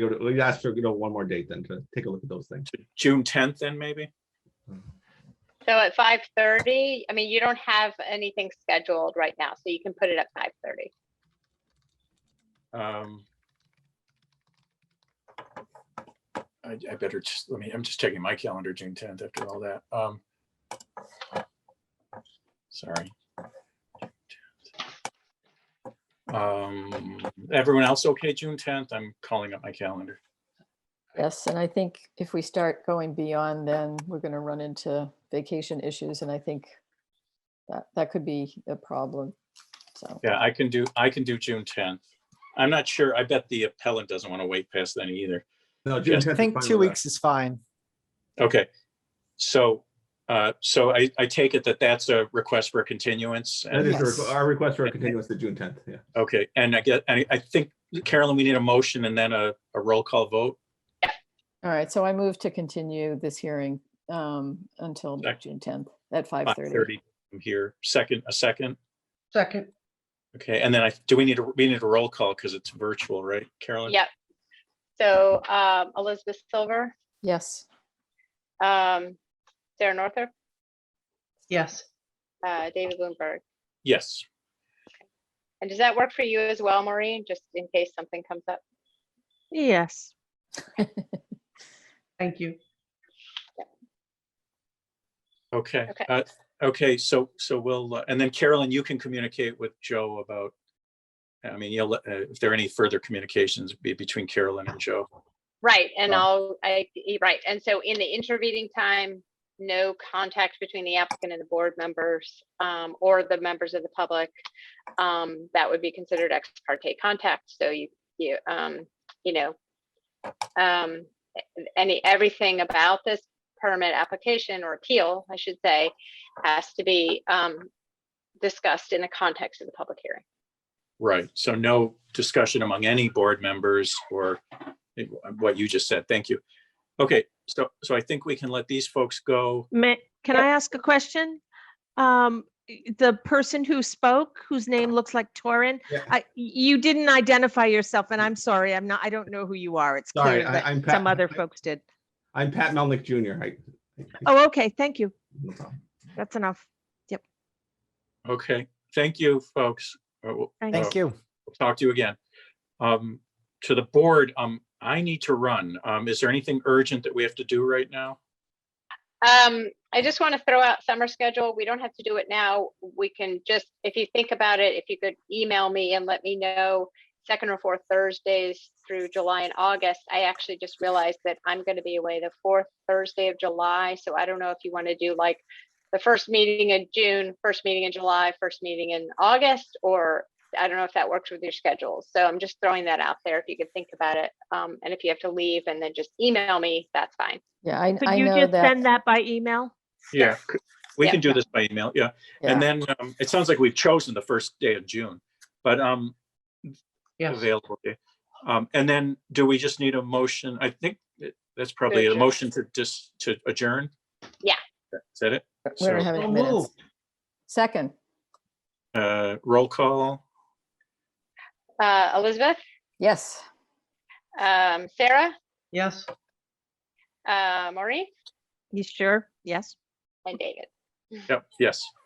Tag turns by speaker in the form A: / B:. A: We would- We'd ask for, you know, one more date then to take a look at those things.
B: to June tenth then maybe?
C: So at five thirty, I mean, you don't have anything scheduled right now, so you can put it at five thirty.
B: Um. I, I better just, let me, I'm just checking my calendar, June tenth after all that. Um. Sorry. Um, everyone else okay, June tenth? I'm calling up my calendar.
D: Yes, and I think if we start going beyond, then we're going to run into vacation issues, and I think that, that could be a problem, so.
B: Yeah, I can do, I can do June tenth. I'm not sure. I bet the appellant doesn't want to wait past then either.
A: No, June
B: Yes.
A: 10th
E: I
A: is
E: think
A: fine
E: two
A: with us.
E: weeks is fine.
B: Okay, so, uh, so I, I take it that that's a request for a continuance?
A: That
B: and-
A: is a requ-
E: Yes.
A: our request for a continuance to June tenth, yeah.
B: Okay, and I get, I, I think Carolyn, we need a motion and then a, a roll call vote.
D: All right, so I move to continue this hearing um, until
B: Sec-
D: June 10th at
B: Five
D: 5:30.
B: thirty from here, second, a second.
F: Second,
B: Okay, and then I, do we need, a we need a roll call because it's virtual, right, Carolyn?
C: Yep. So um, Elizabeth Silver,
D: Yes,
C: um, Sarah Northrop,
F: yes,
C: uh, David Bloomberg.
B: Yes,
C: And does that work for you as well, Maureen, just in case something comes up?
G: Yes,
F: thank you.
B: okay.
C: Okay.
B: uh, Okay, so, so we'll, uh, and then Carolyn, you can communicate with Joe about, I mean, you'll, let- uh, if there are any further communications be between Carolyn and Joe.
C: Right, and
B: Right.
C: I'll, I, e- right, and so in the intervening time, no contact between the applicant and the board members um, or the members of the public. um, That would be considered ex parte contact, so you, you, um, you know, um, a- any, everything about this permit application or appeal, I should say, has to be um, discussed in the context of the public hearing.
B: Right, so no discussion among any board members or what you just said, thank you. Okay, so, so I think we can let these folks go.
G: may, can
C: Yep.
G: I ask a question? Um, y- the person who spoke, whose name looks like Torin,
A: Yeah.
G: I, you didn't identify yourself and I'm sorry, I'm not, I don't know who you are. It's
A: Sorry,
G: clear
A: I-
G: that
A: I'm Pat-
G: some other
A: I-
G: folks did.
A: I'm Pat Melnick Jr. I- I-
G: Oh, okay, thank you.
A: no problem.
G: That's enough.
B: Okay, thank you, folks. Uh, we'll-
G: Thanks.
E: Thank you.
B: we'll Talk to you again. Um, to the board, um, I need to run. Um, is there anything urgent that we have to do right now?
C: Um, I just want to throw out summer schedule. We don't have to do it now. We can just, if you think about it, if you could email me and let me know second or fourth Thursdays through July and August. I actually just realized that I'm going to be away the fourth Thursday of July. So I don't know if you want to do like the first meeting in June, first meeting in July, first meeting in August, or I don't know if that works with your schedule. So I'm just throwing that out there if you could think about it. Um, and if you have to leave and then just email me, that's fine.
D: yeah, I,
G: Could
D: I
G: you
D: know
G: just send
D: that.
G: that by email?
B: Yeah. We
C: Yeah.
B: can do this by email, yeah. And
D: yeah.
B: then, um, it sounds like we've chosen the first day of June, but, um,
F: Yes,
B: available. okay. Um, and then do we just need a motion? I think that- that's probably a
C: adjourn.
B: motion to just, to adjourn?
C: Yeah.
B: Is that it?
D: We don't
B: so-
D: have any
F: So
D: minutes.
F: moved.
D: Second,
B: Uh, roll call?
C: Uh, Elizabeth?
D: yes,
C: Um, Sarah,
F: yes,
C: uh, Maureen,
G: You sure? Yes.
C: and David.
B: Yep, yes.